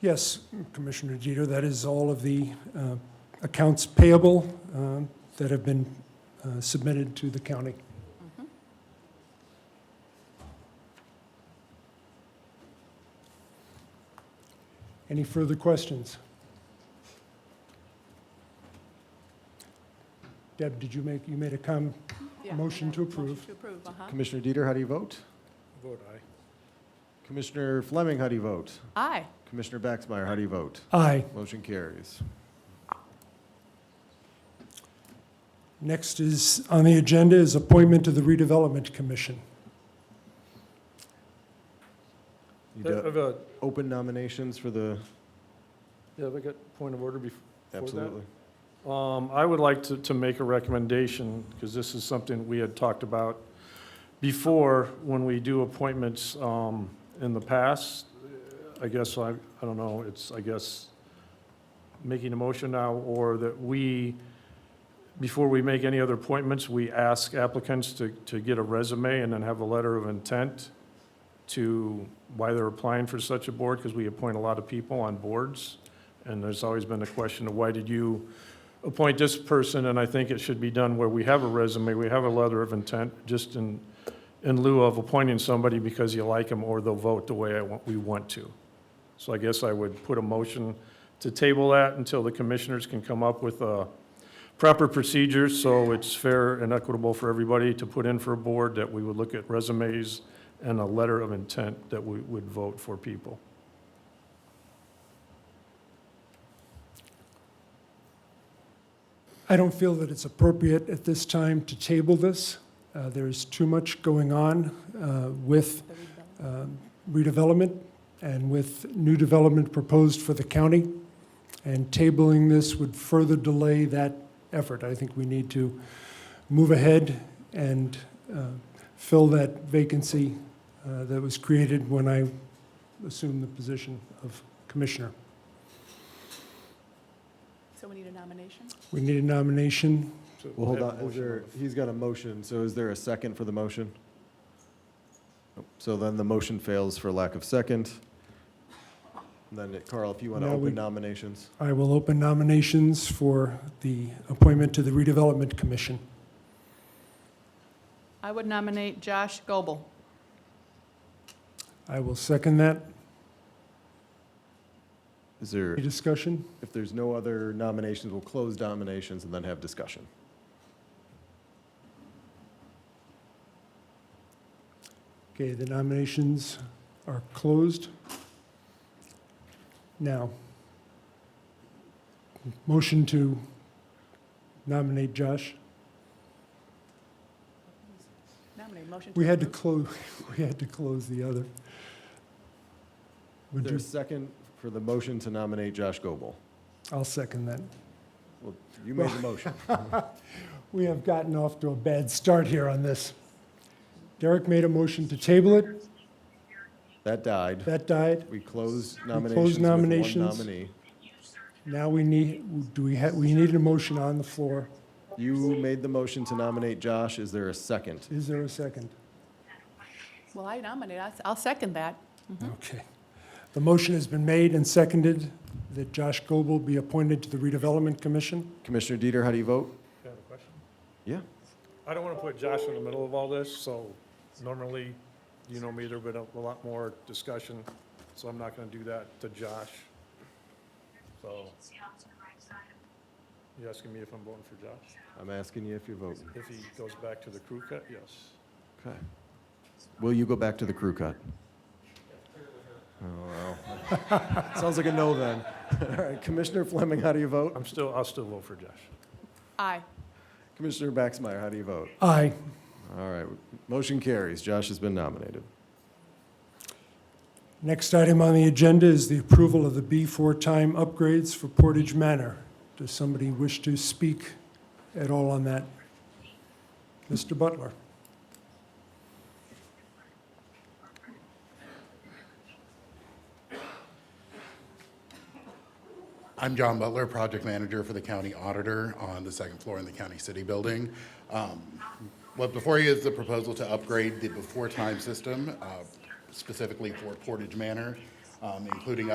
Yes, Commissioner Jeter, that is all of the uh, accounts payable um, that have been uh, submitted to the county. Mm-hmm. Any further questions? Deb, did you make, you made a comment? Yeah. Motion to approve. Motion to approve, uh-huh. Commissioner Dieter, how do you vote? Vote aye. Commissioner Fleming, how do you vote? Aye. Commissioner Baxmeyer, how do you vote? Aye. Motion carries. Next is, on the agenda is appointment to the redevelopment commission. Need I to have a, open nominations for the, yeah, have I got point of order before? that? absolutely. Um, I would like to, to make a recommendation, because this is something we had talked about before, when we do appointments, um, in the past. I guess I, I don't know, it's, I guess, making a motion now, or that we, before we make any other appointments, we ask applicants to, to get a resume and then have a letter of intent to why they're applying for such a board, because we appoint a lot of people on boards. And there's always been a question of why did you appoint this person, and I think it should be done where we have a resume, we have a letter of intent, just in, in lieu of appointing somebody because you like them or they'll vote the way I want, we want to. So I guess I would put a motion to table that until the commissioners can come up with a proper procedure, so it's fair and equitable for everybody to put in for a board, that we would look at resumes and a letter of intent that we would vote for people. I don't feel that it's appropriate at this time to table this. Uh, There's too much going on uh, with The redevelopment. um, redevelopment and with new development proposed for the county. And tabling this would further delay that effort. I think we need to move ahead and uh, fill that vacancy uh, that was created when I assumed the position of commissioner. So we need a nomination? We need a nomination. Well, hold on, is there, he's got a motion, so is there a second for the motion? Nope. So then the motion fails for lack of second. And Then uh, Carl, if you want to Now we- open nominations, I will open nominations for the appointment to the redevelopment commission. I would nominate Josh Goble. I will second that. is there, Any discussion? if there's no other nominations, we'll close nominations and then have discussion. Okay, the nominations are closed. Now, motion to nominate Josh. Nominate, motion to We had to approve. close, we had to close the other. Is Would there a you, second for the motion to nominate Josh Goble? I'll second that. Well, you made the motion. We have gotten off to a bad start here on this. Derek made a motion to table it. That died. That died. We closed closed nominations with one nominations. nominee. Now we need, do we have, we need a motion on the floor. You made the motion to nominate Josh. Is there a second? Is there a second? Well, I nominate, I'll- I'll second that. Okay. The motion has been made and seconded that Josh Goble be appointed to the Redevelopment Commission. Commissioner Dieter, how do you vote? Yeah. I don't want to put Josh in the middle of all this, so normally, you know me, there've been a lot more discussion, so I'm not going to do that to Josh. So. You asking me if I'm voting for Josh? I'm asking you if you vote. If he goes back to the crew cut, yes. Okay. Will you go back to the crew cut? Oh, well. Sounds like a no then. All right, Commissioner Fleming, how do you vote? I'm still, I'll still vote for Josh. Aye. Commissioner Baxmeyer, how do you vote? Aye. All right, motion carries. Josh has been nominated. Next item on the agenda is the approval of the B4 time upgrades for Portage Manor. Does somebody wish to speak at all on that? Mr. Butler? I'm John Butler, project manager for the county auditor on the second floor in the county city building. Um, What before you is the proposal to upgrade the before-time system, uh, specifically for Portage Manor, um, including